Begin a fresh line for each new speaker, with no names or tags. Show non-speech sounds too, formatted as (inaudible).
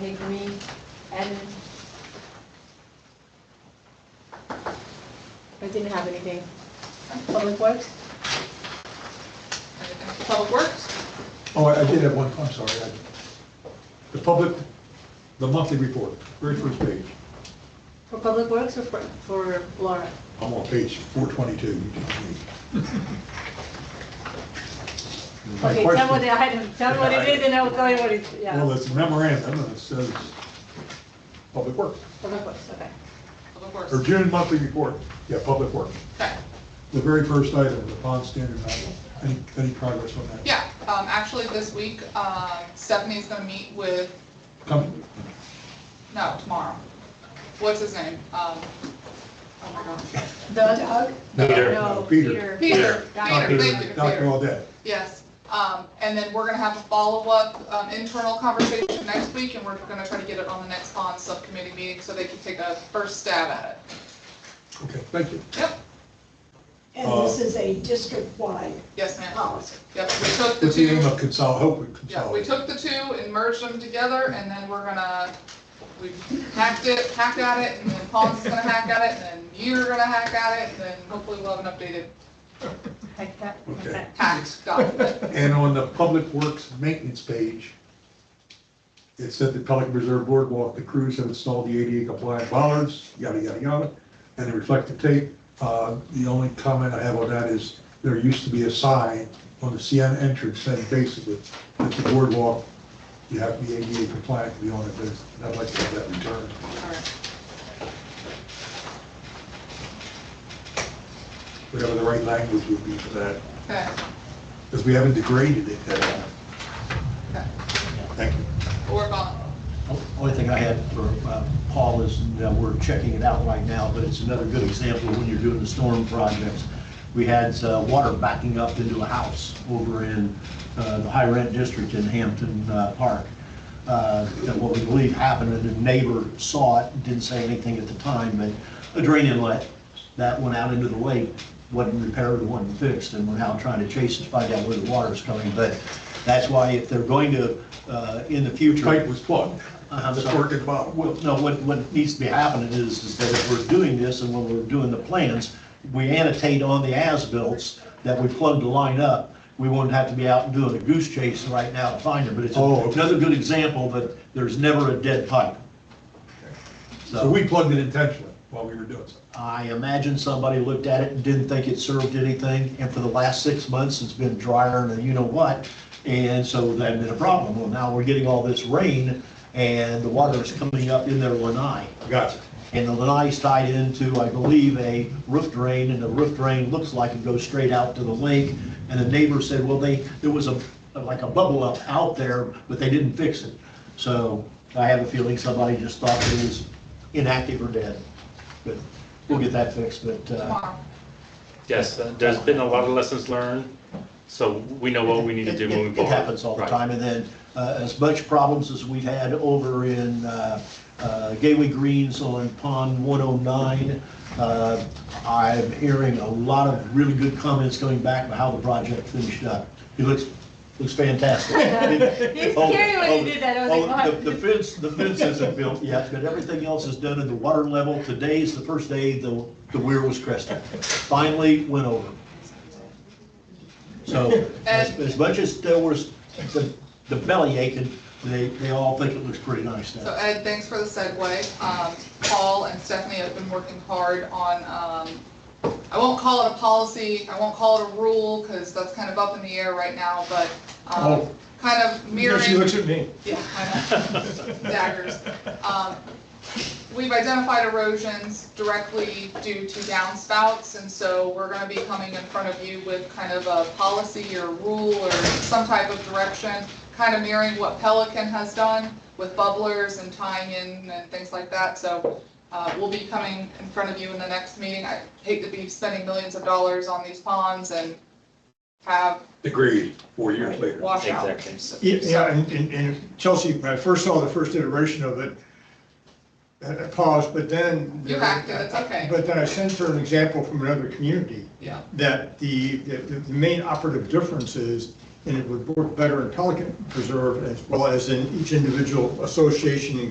Kelly Green, added. I didn't have anything. Public Works?
Public Works?
Oh, I I did have one, I'm sorry. I- The public, the monthly report, very first page.
For Public Works or for, for Laura?
I'm on page 422. you tell me. My
Okay,
question-
tell what the item, tell what it is and I'll tell you what it's,
Well,
yeah.
it's a memorandum and it says Public Works,
Public Works, okay.
Public Works.
or June monthly report, yeah, Public Works.
Okay.
The very first item, the bond standard model. Any, any progress on that?
Yeah, um, actually, this week, um, Stephanie's gonna meet with,
Coming,
no, tomorrow. What's his name? Um, oh my gosh.
The Doug?
No,
Peter.
No,
no, Peter.
Peter.
Peter,
Doc.
Peter, thank you,
Dr.
Peter.
Audette.
Yes. Um, and then we're gonna have a follow-up, um, internal conversation next week, and we're gonna try to get it on the next bond subcommittee meeting, so they can take a first stab at
Okay, thank you.
it. Yep,
And this is a district-wide
yes, ma'am.
policy.
Yep, we took the
With the aim
two,
of consol, hopefully
yeah, we
consolidating.
took the two and merged them together, and then we're gonna, we hacked it, hacked at it, and then Paul's gonna hack at it, and then you're gonna hack at it, and then hopefully we'll have an updated
Like that, like
Okay.
that.
hacked document.
And on the Public Works Maintenance page, it said the Pelican Reserve Boardwalk, the crews have installed the ADA compliant bollards, yada, yada, yada, and the reflective tape. Uh, The only comment I have on that is there used to be a sign on the CN entrance saying basically that the boardwalk, you have to be ADA compliant to be on it, but I'd like to have that returned.
Alright.
Whatever the right language would be for that,
Okay,
because we haven't degraded it that long.
okay,
Thank you.
we'll work on it.
Only thing I had for uh, Paul is that we're checking it out right now, but it's another good example when you're doing the storm projects. We had uh, water backing up into a house over in uh, the high rent district in Hampton uh, Park. Uh, That what we believe happened, and the neighbor saw it, didn't say anything at the time, but a drain inlet that went out into the lake, wasn't repaired, wasn't fixed, and we're now trying to chase and find out where the water's coming. But that's why if they're going to, uh, in the future.
Pipe was plugged.
Uh-huh,
It's
so-
working bottom.
Well, no, what, what needs to be happening is, is that if we're doing this and when we're doing the plans, we annotate on the as-bills that we plugged the line up. We wouldn't have to be out doing a goose chase right now to find them, but it's
Oh, okay.
another good example that there's never a dead pipe.
So we plugged it intentionally while we were doing something.
I imagine somebody looked at it and didn't think it served anything, and for the last six months, it's been drier than you know what, and so that had been a problem. Well, now we're getting all this rain, and the water is coming up in their lanai.
Gotcha.
And the lanai's tied into, I believe, a roof drain, and the roof drain looks like it goes straight out to the lake. And the neighbor said, well, they, there was a, like a bubble up out there, but they didn't fix it. So I have a feeling somebody just thought it was inactive or dead. But we'll get that fixed, but, uh,
Tomorrow.
Yes, uh, there's been a lot of lessons learned, so we know what we need to do
It-
moving
it-
forward.
It happens all the (laughs)
Right.
time, and then uh, as much problems as we've had over in uh, uh, Gateway Greens on Pond 109, uh, I'm hearing a lot of really good comments coming back about how the project finished up. It looks, looks
(laughs)
fantastic.
It's scary when you did that, I was like,
Oh,
what?
the- The fence, the fence isn't built yet, but everything else is done at the water level. Today's the first day the, the weir was crested. Finally went over. So as, as much as there was the, the belly aching, they, they all think it looks pretty nice
So
now.
Ed, thanks for the segue. Um, Paul and Stephanie have been working hard on, um, I won't call it a policy, I won't call it a rule, because that's kind of up in the air right now, but um,
Oh.
kind of mirroring.
at me.
Yeah, I know. Daggers. Um, We've identified erosions directly due to downspouts, and so we're gonna be coming in front of you with kind of a policy or rule or some type of direction, kind of mirroring what Pelican has done with bubblers and tying in and things like that, so uh, we'll be coming in front of you in the next meeting. I hate to be spending millions of dollars on these ponds and have
Agreed, four years later.
washouts.
(laughs) Exactly.
Yeah, Yeah, and, and- and Chelsea, when I first saw the first iteration of it, I I paused, but then.
You hacked it, it's okay.
But then I sent her an example from another community
Yeah.
that the, the, the main operative difference is and it would work better in Pelican Preserve as well as in each individual association and